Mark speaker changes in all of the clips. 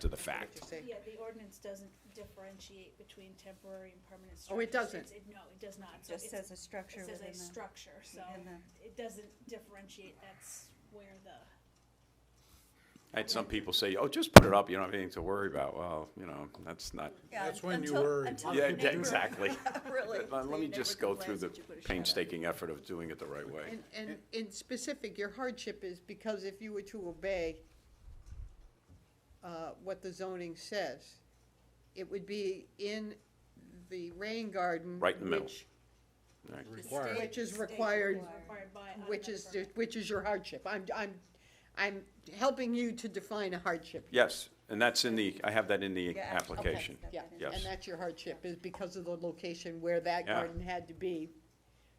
Speaker 1: to the fact.
Speaker 2: Yeah, the ordinance doesn't differentiate between temporary and permanent structures.
Speaker 3: Oh, it doesn't.
Speaker 2: It's- it- No, it does not. So
Speaker 4: Just
Speaker 2: it's-
Speaker 4: says a structure
Speaker 2: It says
Speaker 4: within
Speaker 2: a
Speaker 4: the,
Speaker 2: structure, so
Speaker 4: within the-
Speaker 2: it doesn't differentiate, that's where the,
Speaker 1: I had some people say, oh, just put it up, you don't have anything to worry about. Well, you know, that's not,
Speaker 5: Yeah,
Speaker 6: That's when you
Speaker 5: until-
Speaker 6: worry.
Speaker 5: until
Speaker 1: yeah,
Speaker 5: the
Speaker 1: exa-
Speaker 5: neighbor-
Speaker 1: exactly.
Speaker 5: Really.
Speaker 1: But Let me
Speaker 5: the
Speaker 1: just
Speaker 5: neighbor
Speaker 1: go through
Speaker 5: complains
Speaker 1: the
Speaker 5: that you put a shed up.
Speaker 1: painstaking effort of doing it the right way.
Speaker 3: And, and in specific, your hardship is because if you were to obey uh, what the zoning says, it would be in the rain garden.
Speaker 1: Right in the middle.
Speaker 3: which-
Speaker 1: Right.
Speaker 6: Required.
Speaker 3: Which is
Speaker 4: State
Speaker 3: required,
Speaker 2: required by.
Speaker 3: which
Speaker 2: automatic
Speaker 3: is,
Speaker 2: permit.
Speaker 3: which is your hardship. I'm, I'm, I'm helping you to define a hardship.
Speaker 1: Yes, and that's in the, I have that in the
Speaker 4: Yeah,
Speaker 1: application.
Speaker 4: okay.
Speaker 3: Yeah,
Speaker 1: Yes.
Speaker 3: and that's your hardship, is because of the location where that
Speaker 1: Yeah.
Speaker 3: garden had to be.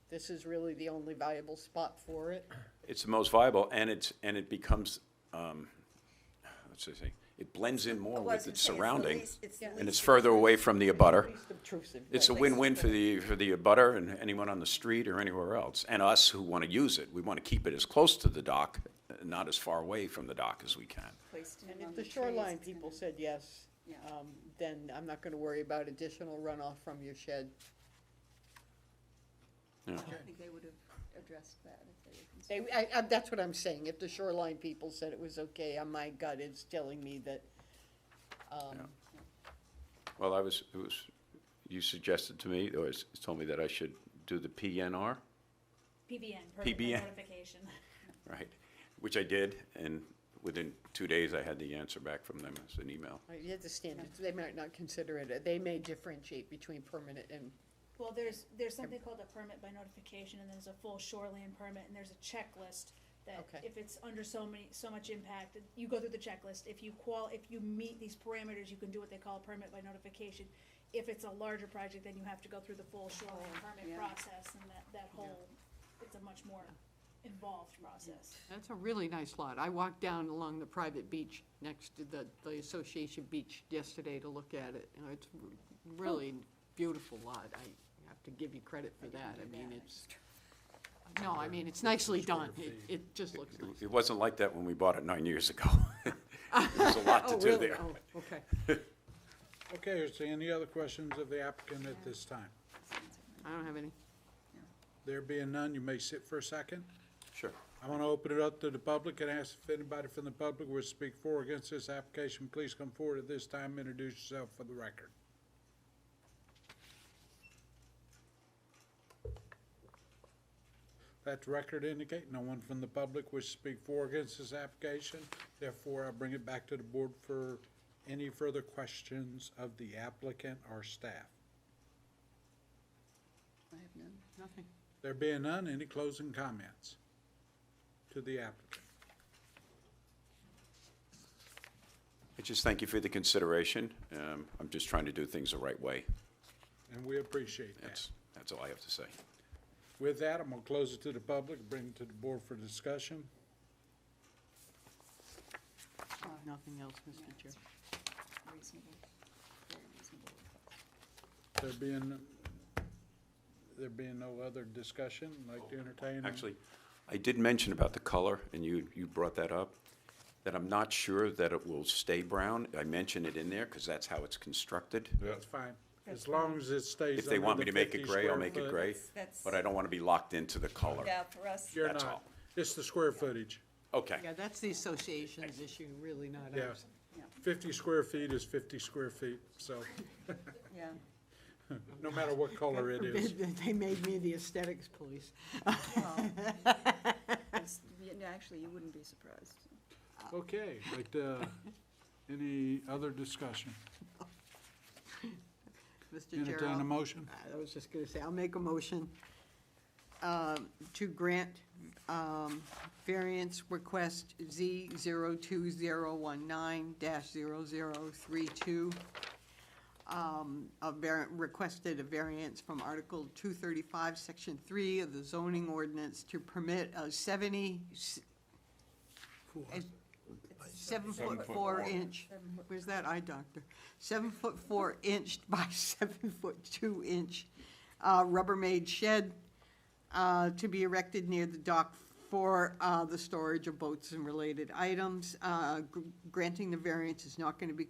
Speaker 3: This is really the only viable spot for it.
Speaker 1: It's the most viable, and it's, and it becomes, um, let's just say, Oh, it blends in more
Speaker 5: I
Speaker 1: with
Speaker 5: wasn't
Speaker 1: its
Speaker 5: saying
Speaker 1: surrounding,
Speaker 5: least- it's the
Speaker 3: and
Speaker 1: and it's
Speaker 5: least
Speaker 1: further away from the abutter.
Speaker 3: Least obtrusive.
Speaker 1: It's a
Speaker 3: but-
Speaker 1: win-win for the, for the abutter and anyone on the street or anywhere else, and us who want to use it. We want to keep it as close to the dock, uh, not as far away from the dock as we can.
Speaker 4: placed in
Speaker 3: And
Speaker 4: among
Speaker 3: if the
Speaker 4: trees,
Speaker 3: shoreline
Speaker 4: it's gonna-
Speaker 3: people said yes,
Speaker 4: Yeah.
Speaker 3: um, then I'm not gonna worry about additional runoff from your shed.
Speaker 4: I think they would have addressed that if they were concerned.
Speaker 3: They, I, I, that's what I'm saying, if the shoreline people said it was okay, uh, my gut is telling me that, um,
Speaker 1: Well, I was, it was, you suggested to me, or s- told me that I should do the PNR,
Speaker 2: PBN, permit by
Speaker 1: PBN.
Speaker 2: notification.
Speaker 1: right? Which I did, and within two days, I had the answer back from them as an email.
Speaker 3: uh, you have the standards, they might not consider it, uh, they may differentiate between permanent and,
Speaker 2: Well, there's, there's something called a permit by notification, and there's a full shoreline permit, and there's a checklist that
Speaker 3: Okay.
Speaker 2: if it's under so many, so much impact, you go through the checklist. If you qual, if you meet these parameters, you can do what they call a permit by notification. If it's a larger project, then you have to go through the full shoreline permit
Speaker 4: yeah.
Speaker 2: process, and that, that whole, it's a much more involved process.
Speaker 3: That's a really nice lot. I walked down along the private beach next to the, the Association Beach yesterday to look at it. You know, it's r- really beautiful lot. I have to give Oh. you credit for that. I mean, it's, no, I mean, it's nicely done. It, it just looks
Speaker 1: It-
Speaker 3: nice.
Speaker 1: It wasn't like that when we bought it nine years ago. There's a lot to
Speaker 3: Oh,
Speaker 1: do
Speaker 3: really?
Speaker 1: there.
Speaker 3: Oh, okay.
Speaker 6: Okay, is there any other questions of the applicant at this time?
Speaker 3: I don't have any.
Speaker 6: There being none, you may sit for a second.
Speaker 1: Sure.
Speaker 6: I want to open it up to the public and ask if anybody from the public would speak for or against this application. Please come forward at this time, introduce yourself for the record. Let the record indicate no one from the public would speak for or against this application. Therefore, I bring it back to the board for any further questions of the applicant or staff.
Speaker 4: I have none.
Speaker 3: Nothing.
Speaker 6: There being none, any closing comments to the applicant?
Speaker 1: I just thank you for the consideration. Um, I'm just trying to do things the right way.
Speaker 6: And we appreciate that.
Speaker 1: That's, that's all I have to say.
Speaker 6: With that, I'm gonna close it to the public, bring it to the board for discussion.
Speaker 3: Nothing else, Mr. Chair.
Speaker 4: Reasonable, very reasonable.
Speaker 6: There being, there being no other discussion, like to entertain.
Speaker 1: Actually, I did mention about the color, and you, you brought that up, that I'm not sure that it will stay brown. I mentioned it in there because that's how it's constructed.
Speaker 6: That's fine, as long as it stays
Speaker 1: If they
Speaker 6: under
Speaker 1: want me
Speaker 6: the
Speaker 1: to make it
Speaker 6: 50
Speaker 1: gray, I'll
Speaker 6: square
Speaker 1: make it
Speaker 6: foot.
Speaker 1: gray,
Speaker 4: That's-
Speaker 1: but I don't want to be locked into the color.
Speaker 4: Yeah, for us,
Speaker 6: You're
Speaker 1: That's
Speaker 6: not,
Speaker 1: all.
Speaker 6: it's the square footage,
Speaker 1: Okay,
Speaker 3: Yeah, that's the association's issue, really not
Speaker 6: yeah.
Speaker 3: ours.
Speaker 6: Fifty square feet is fifty square feet, so,
Speaker 4: yeah.
Speaker 6: no matter what color it is.
Speaker 3: They made me the aesthetics police.
Speaker 4: It's- yeah, no, Actually, you wouldn't be surprised.
Speaker 6: Okay, like, uh, any other discussion?
Speaker 3: Mr. Chair,
Speaker 6: Entertain a
Speaker 3: I'll-
Speaker 6: motion?
Speaker 3: I was just gonna say, I'll make a motion um, to grant um, variance request Z zero two zero one nine dash zero zero three two. um, A var, requested a variance from Article two thirty-five, Section three of the zoning ordinance to permit a seventy, s- a seven-foot-four inch, where's that eye doctor? Seven-foot-four inch by seven-foot-two inch uh, Rubbermaid shed uh, to be erected near the dock for uh, the storage of boats and related items. Uh, gr- Granting the variance is not going to be